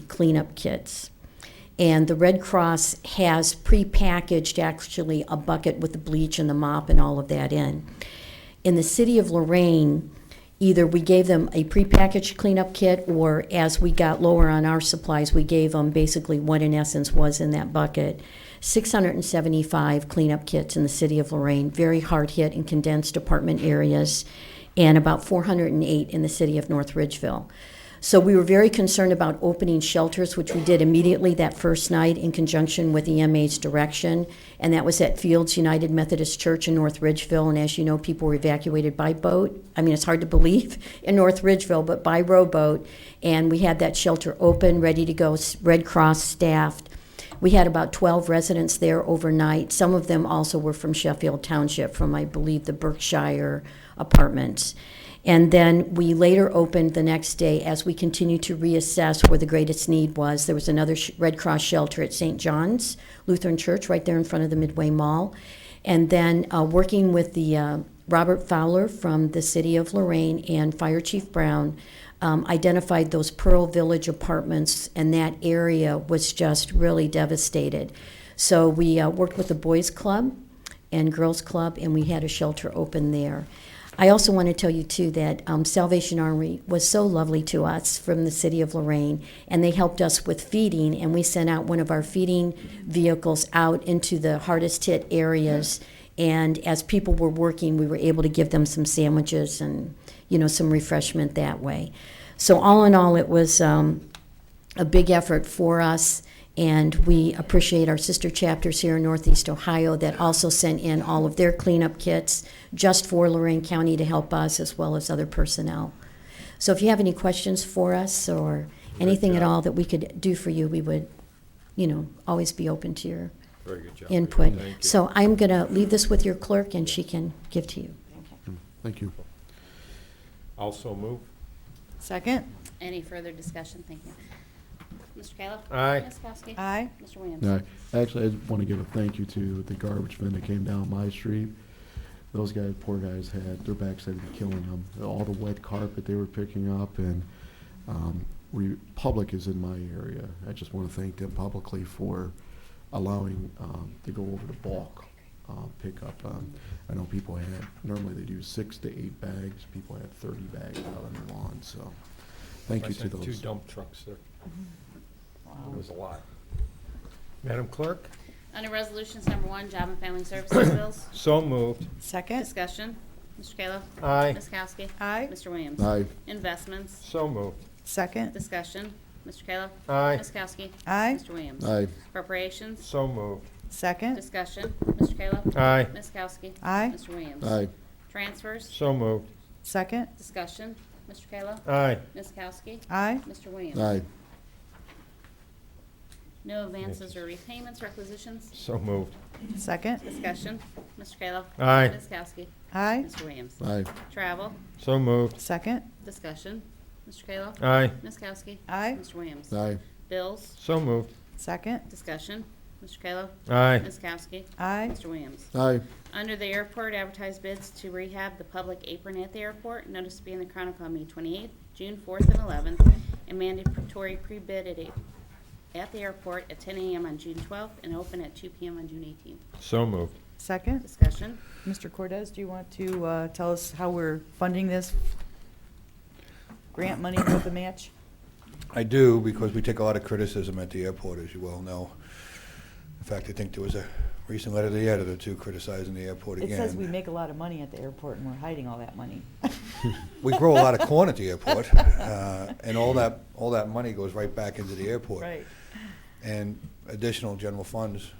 cleanup kits. And the Red Cross has prepackaged actually a bucket with the bleach and the mop and all of that in. In the city of Lorraine, either we gave them a prepackaged cleanup kit or as we got lower on our supplies, we gave them basically what in essence was in that bucket. 675 cleanup kits in the city of Lorraine, very hard hit and condensed apartment areas, and about 408 in the city of North Ridgeville. So we were very concerned about opening shelters, which we did immediately that first night in conjunction with EMA's direction. And that was at Fields United Methodist Church in North Ridgeville. And as you know, people were evacuated by boat. I mean, it's hard to believe in North Ridgeville, but by rowboat. And we had that shelter open, ready to go, s- Red Cross staffed. We had about 12 residents there overnight. Some of them also were from Sheffield Township, from, I believe, the Berkshire Apartments. And then we later opened the next day as we continued to reassess where the greatest need was. There was another sh- Red Cross shelter at St. John's Lutheran Church right there in front of the Midway Mall. And then uh, working with the uh, Robert Fowler from the city of Lorraine and Fire Chief Brown, um, identified those Pearl Village apartments, and that area was just really devastated. So we uh, worked with the Boys Club and Girls Club, and we had a shelter open there. I also want to tell you, too, that um, Salvation Army was so lovely to us from the city of Lorraine, and they helped us with feeding, and we sent out one of our feeding vehicles out into the hardest hit areas. And as people were working, we were able to give them some sandwiches and, you know, some refreshment that way. So, all in all, it was um, a big effort for us, and we appreciate our sister chapters here in Northeast Ohio that also sent in all of their cleanup kits just for Lorraine County to help us as well as other personnel. So if you have any questions for us or anything at all that we could do for you, we would, you know, always be open to your Very good job. input. Thank you. So I'm going to leave this with your clerk, and she can give to you. Thank you. Also move. Second? Any further discussion? Thank you. Mr. Kayla? Aye. Ms. Kowski? Aye. Mr. Williams? No, Actually, I just want to give a thank you to the garbage men that came down my street. Those guys, poor guys, had their backs had been killing them. All the wet carpet they were picking up and um, we, public is in my area. I just want to thank them publicly for allowing um, to go over the bulk uh, pickup. Um, I know people had, normally they do six to eight bags. People had 30 bags out on their lawn, so thank I you to sent Two those. dump trucks there. It was a lot. Madam Clerk? Under Resolutions Number One, Job and Family Services Bills, So moved. Second? discussion. Mr. Kayla? Aye. Ms. Kowski? Aye. Mr. Williams? Aye. Investments, So moved. Second? discussion. Mr. Kayla? Aye. Ms. Kowski? Aye. Mr. Williams? Aye. Appropriations, So moved. Second? discussion. Mr. Kayla? Aye. Ms. Kowski? Aye. Mr. Williams? Aye. Transfers, So moved. Second? discussion. Mr. Kayla? Aye. Ms. Kowski? Aye. Mr. Williams? Aye. No advances or repayments, requisitions, So moved. Second? discussion. Mr. Kayla? Aye. Ms. Kowski? Aye. Mr. Williams? Aye. Travel, So moved. Second? Discussion. Mr. Kayla? Aye. Ms. Kowski? Aye. Mr. Williams? Aye. Bills? So moved. Second? Discussion. Mr. Kayla? Aye. Ms. Kowski? Aye. Mr. Williams? Aye. Under the airport, advertise bids to rehab the public apron at the airport. Notice to be in the Chronicle on May 28th, June 4th, and 11th, and mandatory pre-bid at eight- at the airport at 10 a.m. on June 12th and open at 2 p.m. on June 18th. So moved. Second? Discussion. Mr. Cortez, do you want to uh, tell us how we're funding this? Grant money with the match? I do, because we take a lot of criticism at the airport, as you well know. In fact, I think there was a recent letter to the editor, too, criticizing the airport It again. says we make a lot of money at the airport and we're hiding all that money. We grow a lot of corn at the airport, uh, and all that, all that money goes right back into the airport. Right. And additional general funds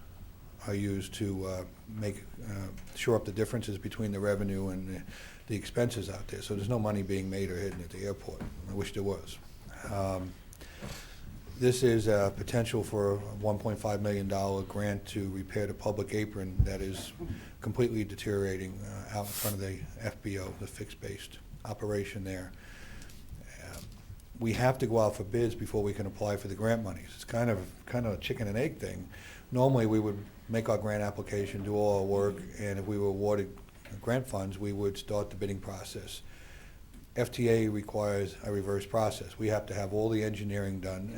are used to uh, make, uh, shore up the differences between the revenue and the- the expenses out there. So there's no money being made or hidden at the airport. I wish there was. Um, This is a potential for a $1.5 million grant to repair the public apron that is completely deteriorating uh, out in front of the FBO, the fixed-based operation there we have to go out for bids before we can apply for the grant monies. It's kind of, kind of a chicken and egg thing. Normally, we would make our grant application, do all our work, and if we were awarded grant funds, we would start the bidding process. FTA requires a reverse process. We have to have all the engineering done